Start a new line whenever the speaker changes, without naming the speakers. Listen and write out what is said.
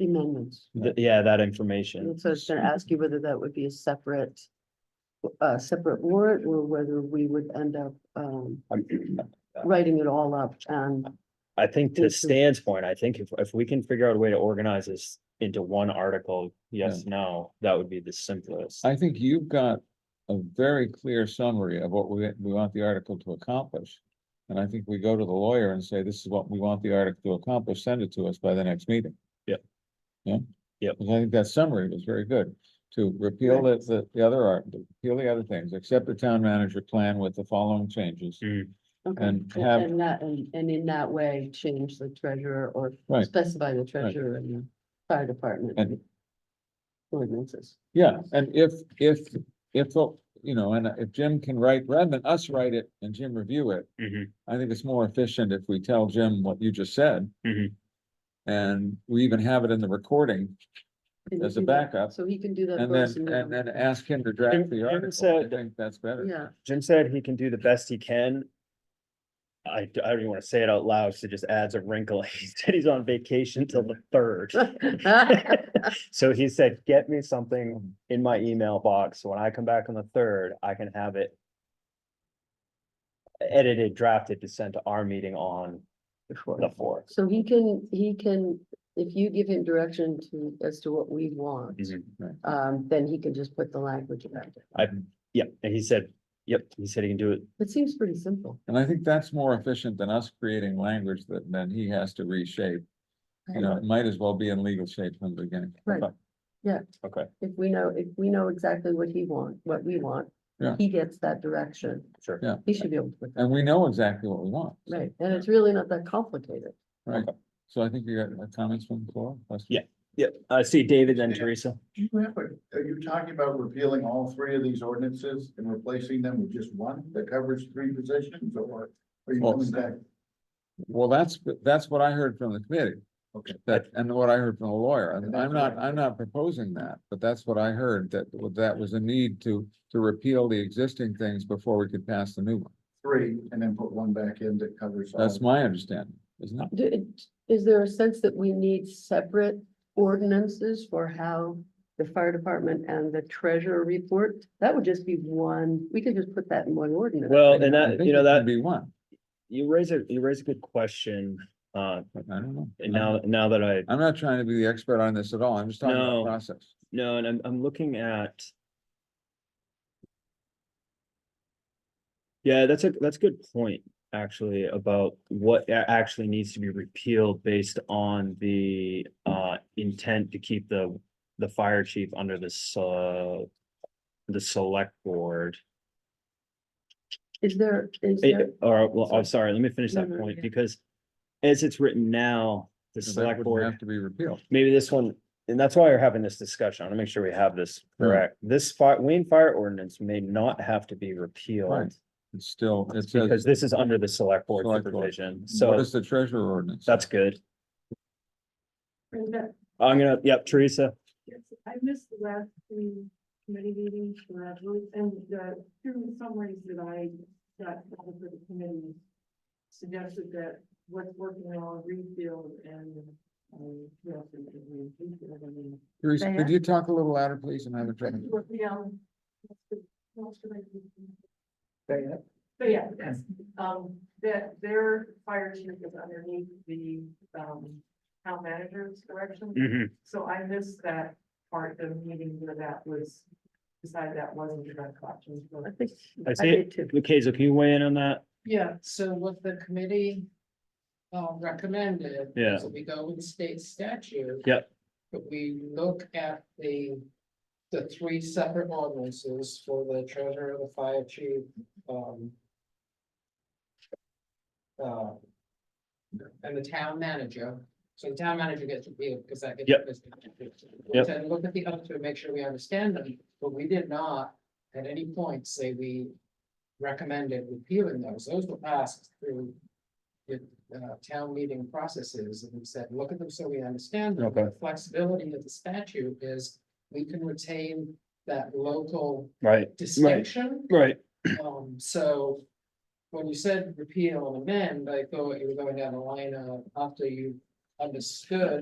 amendments.
Th- yeah, that
And
information.
so I was gonna ask you whether that would be a separate, a separate warrant or whether we would end up, um, writing it all up and
I think to
Thank you.
Stan's point, I think if, if we can figure out a way to organize this into one article, yes, no, that would be the simplest.
I think you've got a very clear summary of what we, we want the article to accomplish. And I think we go to the lawyer and say, this is what we want the article to accomplish, send it to us by the next meeting.
Yep.
Yeah?
Yep.
Because I think that summary was very good, to repeal the, the, the other art, repeal the other things, accept the town manager plan with the following changes.
Mm,
Okay,
And
cool.
have-
And that, and, and in that way, change the treasurer or
Right.
specify the treasurer and the fire department.
And-
Ordinances.
Yeah, and if, if, if, uh, you know, and if Jim can write, rather than us write it and Jim review it,
mhm,
I think it's more efficient if we tell Jim what you just said.
Mhm.
And we even have it in the recording
Can you
As a
do that?
backup,
So he can do that.
and
for us
then,
we
and
don't-
then ask him to
Jim-
draft
Jim
the article. I
said-
think that's better.
Yeah,
Jim said he can do the best he can. I, d- I don't even wanna say it out loud, so it just adds a wrinkle. He said he's on vacation till the third. So he said, get me something in my email box. so When I come back on the third, I can have it edited, drafted to send to our meeting on the fourth.
so he can, he can, if you give him direction to, as to what we want, um, then he can just put the language about it.
Yep, and he said, yep, he said he can do it.
It seems pretty simple.
And I think that's more efficient than us creating language that then he has to reshape. You know, it might as well be in legal shape from the beginning.
Right.
Okay,
If we know, if we know exactly what he want, what we want,
Yeah.
he gets that direction.
sure.
Yeah.
He should be able to put that,
And we know exactly what we want. so-
right? And it's really not that complicated.
Right. So I think you got uh, comments from the floor? questions?
Yeah. Yep, I see David and Teresa.
Do you have, a- are you talking about repealing all three of these ordinances and replacing them with just one that covers three positions or? Are you
Well,
coming back?
Well, that's, that's what I heard from the committee.
Okay.
That, and what I heard from a lawyer, and
And
I'm
that's
not,
what I-
I'm not proposing that, but that's what I heard, that, that was a need to, to repeal the existing things before we could pass the new one.
Three and then put one back in that covers. all.
That's my understanding, isn't it?
Do, it- is there a sense that we need separate ordinances for how the fire department and the treasurer report? That would just be one, we could just put that in one ordinance.
Well, and that,
I think
you
it
know, that,
can Be one,
you raise a, you raise a good question. Uh,
but I don't know.
and now, now that I,
I'm not trying to be the expert on this at all, I'm just talking about
No.
the process.
no, and I'm, I'm looking at. Yeah, that's a, that's a good point, actually, about what a- actually needs to be repealed based on the, uh, intent to keep the, the fire chief under this, uh, the select board.
Is there, is there,
It, or, Eh, well, I'm sorry, let me finish
No,
that
no,
point,
yeah.
because as it's written now, the
That
select
wouldn't
board,
Have to be repealed.
maybe this one, and that's why we're having this discussion, I wanna make sure we have this correct. This fire, Wayne Fire Ordinance may not have to be repealed,
Right. It's still, it
because
says,
this is under the select board
Select board.
supervision,
what
so
is the treasurer ordinance?
that's good.
And that-
I'm gonna, yep, Teresa,
yes, I missed the last three committee meetings for that, really, and the two summaries that I got from the committee suggested that what's working on refill and, um, what else is it? Refill, I mean,
Teresa,
Diane?
could you talk a little louder, please, and have a drink?
what the, um, what's the- what's the-
Say it.
So yeah, yes, um, that their fire chief is underneath the, um, town manager's direction.
Mhm,
Mm-hmm.
So I missed that part of the meeting where that was, decided that wasn't direct options.
I think.
I see
did
it,
too.
okay, so can you weigh in on that?
Yeah, so what the committee uh recommended.
Yeah.
So we go with state statute.
Yep.
But we look at the, the three separate ordinances for the treasurer, the fire chief, um. uh, And the town manager, so the town manager gets reviewed because that gets.
Yep. Yep.
And look at the other two, and make sure we understand them, but we did not at any point say we recommended repealing those, those were passed through. The uh town meeting processes, and we said, look at them so we understand them,
Okay.
the flexibility of the statute is. We can retain that local
Right,
distinction,
right.
um, so. When you oh, said repeal and amend, I thought you were going down the line of after you understood